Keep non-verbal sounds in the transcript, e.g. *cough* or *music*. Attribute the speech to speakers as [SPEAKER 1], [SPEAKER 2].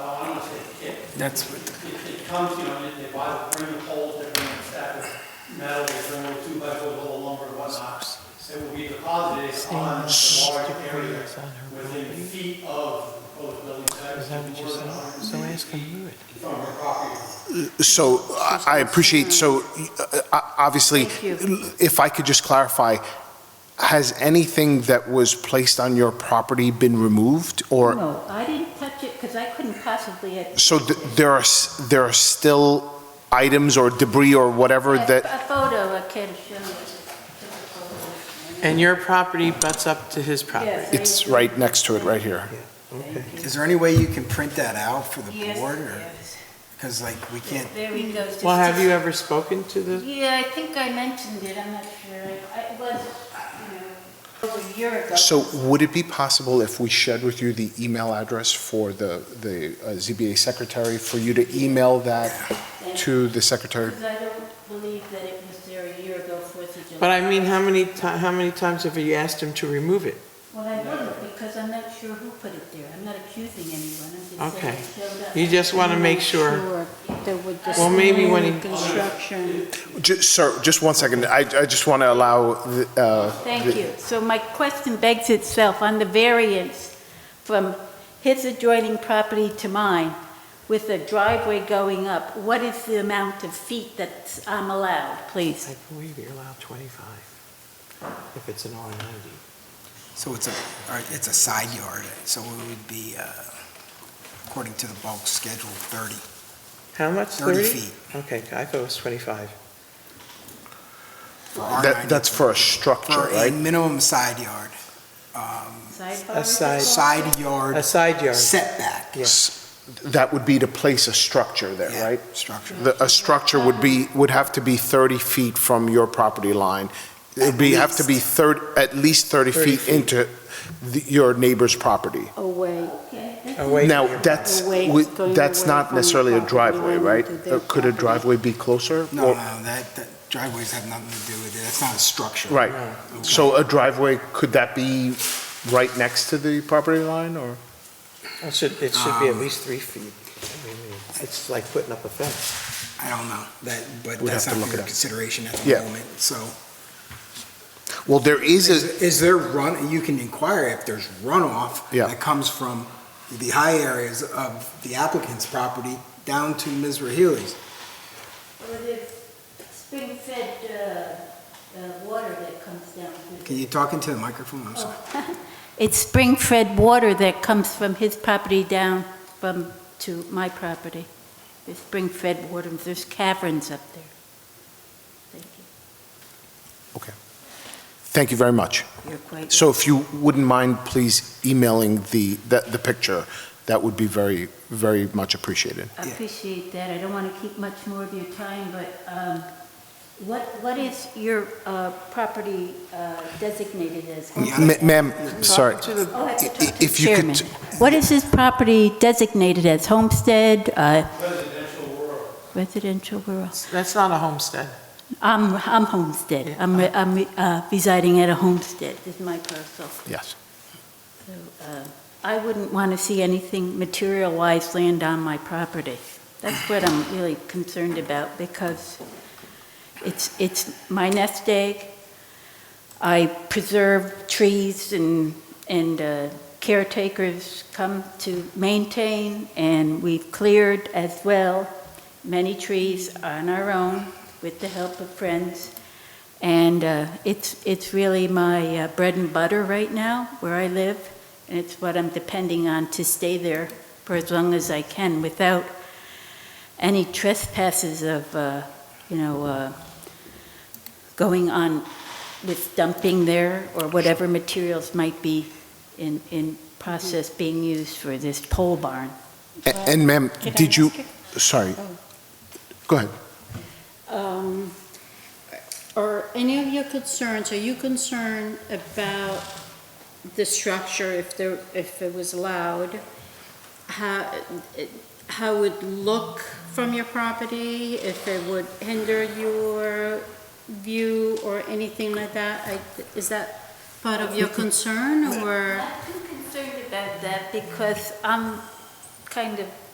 [SPEAKER 1] That's what,
[SPEAKER 2] It it comes, you know, they they buy the frame of poles, they're going to stack with metal, they're going to two by four, little lumber and whatnot. It will be deposited on the
[SPEAKER 3] Stainless
[SPEAKER 2] large area
[SPEAKER 3] debris on her
[SPEAKER 2] within
[SPEAKER 3] property.
[SPEAKER 2] feet of both buildings.
[SPEAKER 3] Is that what you
[SPEAKER 2] more than
[SPEAKER 3] said?
[SPEAKER 2] 100
[SPEAKER 3] So ask him who it.
[SPEAKER 2] From her property.
[SPEAKER 4] So I I appreciate, so uh, uh, obviously,
[SPEAKER 5] Thank
[SPEAKER 4] if I could just clarify, has anything that was placed on your property been removed? Or,
[SPEAKER 5] No, I didn't touch it because I couldn't possibly have.
[SPEAKER 4] so th- there are, s- there are still items or debris or whatever that,
[SPEAKER 5] A photo I can show you.
[SPEAKER 3] And your property butts up to his property.
[SPEAKER 5] Yes, I
[SPEAKER 4] it's
[SPEAKER 5] do.
[SPEAKER 4] right next to it, right here.
[SPEAKER 3] Okay.
[SPEAKER 6] Is there any way you can print that out for the
[SPEAKER 5] Yes,
[SPEAKER 6] board, or,
[SPEAKER 5] yes.
[SPEAKER 6] because like, we can't,
[SPEAKER 5] There he goes.
[SPEAKER 3] Well, have you ever spoken to the,
[SPEAKER 5] Yeah, I think I mentioned it, I'm not sure. I- It was, you know, over a year ago.
[SPEAKER 4] So would it be possible if we shared with you the email address for the, the uh, ZBA secretary, for you to email that to the secretary?
[SPEAKER 5] Because I don't believe that it was there a year ago, Fourth of July.
[SPEAKER 3] but I mean, how many ti, how many times have you asked him to remove it?
[SPEAKER 5] Well, I wouldn't because I'm not sure who put it there. I'm not accusing anyone, I'm just saying
[SPEAKER 3] Okay.
[SPEAKER 5] it showed up.
[SPEAKER 3] You just want to make sure.
[SPEAKER 7] There would just
[SPEAKER 3] Well, maybe when he-
[SPEAKER 7] construction.
[SPEAKER 4] Ju- Sir, just one second, I, I just want to allow the, uh,
[SPEAKER 5] Thank you. So my question begs itself on the variance from his adjoining property to mine with the driveway going up. What is the amount of feet that I'm allowed, please?
[SPEAKER 3] I believe you're allowed 25, if it's an R90.
[SPEAKER 6] so it's a, all right, it's a side yard, so it would be, uh, according to the bulk schedule, 30,
[SPEAKER 3] How much,
[SPEAKER 6] 30
[SPEAKER 3] 30?
[SPEAKER 6] feet
[SPEAKER 3] Okay, I thought it was 25.
[SPEAKER 6] for
[SPEAKER 4] that,
[SPEAKER 6] R90.
[SPEAKER 4] that's for a
[SPEAKER 6] For
[SPEAKER 4] structure,
[SPEAKER 6] a
[SPEAKER 4] right?
[SPEAKER 6] minimum side yard, um,
[SPEAKER 5] Sidebar is
[SPEAKER 3] Aside-
[SPEAKER 5] it?
[SPEAKER 6] side yard
[SPEAKER 3] A side yard.
[SPEAKER 6] setback.
[SPEAKER 3] Yeah.
[SPEAKER 4] S- That would be to place a structure there,
[SPEAKER 6] Yeah,
[SPEAKER 4] right?
[SPEAKER 6] Structure.
[SPEAKER 4] The, a structure would be, would have to be 30 feet from your property line. It'd be, have to be 30, at least 30
[SPEAKER 3] 30
[SPEAKER 4] feet into the- your neighbor's property.
[SPEAKER 7] Away.
[SPEAKER 5] Okay, that's
[SPEAKER 3] away
[SPEAKER 4] Now,
[SPEAKER 3] from your-
[SPEAKER 4] that's,
[SPEAKER 7] Away,
[SPEAKER 4] we-
[SPEAKER 7] going
[SPEAKER 4] that's
[SPEAKER 7] away
[SPEAKER 4] not
[SPEAKER 7] from the
[SPEAKER 4] necessarily a
[SPEAKER 7] property
[SPEAKER 4] driveway,
[SPEAKER 7] line
[SPEAKER 4] right?
[SPEAKER 7] to their
[SPEAKER 4] Uh, Could a
[SPEAKER 7] property.
[SPEAKER 4] driveway be closer?
[SPEAKER 6] No, no,
[SPEAKER 4] Or-
[SPEAKER 6] that, that driveways have nothing to do with it, that's not a structure.
[SPEAKER 4] Right.
[SPEAKER 3] No.
[SPEAKER 4] So a driveway, could that be right next to the property line, or?
[SPEAKER 3] It should, it should be at
[SPEAKER 6] Um,
[SPEAKER 3] least three feet. I mean, It's like putting up a fence.
[SPEAKER 6] I don't know, that, but
[SPEAKER 4] We'd
[SPEAKER 6] that's
[SPEAKER 4] have
[SPEAKER 6] not
[SPEAKER 4] to look
[SPEAKER 6] for
[SPEAKER 4] it
[SPEAKER 6] your
[SPEAKER 4] up.
[SPEAKER 6] consideration at the
[SPEAKER 4] Yeah.
[SPEAKER 6] moment, so.
[SPEAKER 4] Well, there is a,
[SPEAKER 6] Is, is there run, you can inquire if there's runoff
[SPEAKER 4] Yeah.
[SPEAKER 6] that comes from the high areas of the applicant's property down to Ms. Raheli's.
[SPEAKER 5] Or the spring-fed uh, uh, water that comes down
[SPEAKER 6] Can
[SPEAKER 5] through.
[SPEAKER 6] you talk into the microphone? I'm sorry.
[SPEAKER 5] *laughs* It's spring-fed water that comes from his property down from, to my property. There's spring-fed water, there's caverns up there. Thank you.
[SPEAKER 4] thank you very much.
[SPEAKER 5] You're quite.
[SPEAKER 4] So if you wouldn't mind, please emailing the, the the picture, that would be very, very much appreciated.
[SPEAKER 5] I appreciate that. I don't want to keep much more of your time, but um, what, what is your uh, property uh, designated as?
[SPEAKER 6] Yeah.
[SPEAKER 4] Ma- Ma'am, sorry,
[SPEAKER 3] Talk to the-
[SPEAKER 5] Oh, I have to talk to
[SPEAKER 4] I-
[SPEAKER 5] the
[SPEAKER 4] if you could-
[SPEAKER 5] chairman. What is this property designated as? Homestead, uh,
[SPEAKER 2] Residential rural.
[SPEAKER 5] residential, rural?
[SPEAKER 3] That's not a homestead.
[SPEAKER 5] I'm, I'm homestead. I'm, re- I'm re- uh, residing at a homestead, is my parcel.
[SPEAKER 4] yes.
[SPEAKER 5] So, uh, I wouldn't want to see anything material-wise land on my property. That's what I'm really concerned about, because it's, it's my nest egg. I preserve trees and, and uh, caretakers come to maintain, and we've cleared as well many trees on our own with the help of friends. And uh, it's, it's really my uh, bread and butter right now, where I live, and it's what I'm depending on to stay there for as long as I can without any trespasses of, uh, you know, uh, going on with dumping there or whatever materials might be in, in process being used for this pole barn.
[SPEAKER 4] A- And ma'am,
[SPEAKER 7] Could I
[SPEAKER 4] did you,
[SPEAKER 7] ask you-
[SPEAKER 4] sorry, go ahead.
[SPEAKER 7] Um, Are any of your concerns, are you concerned about the structure, if there, if it was allowed? How, it- how it would look from your property, if it would hinder your view or anything like that? I- Is that part of your concern, or?
[SPEAKER 5] I'm concerned about that because I'm kind of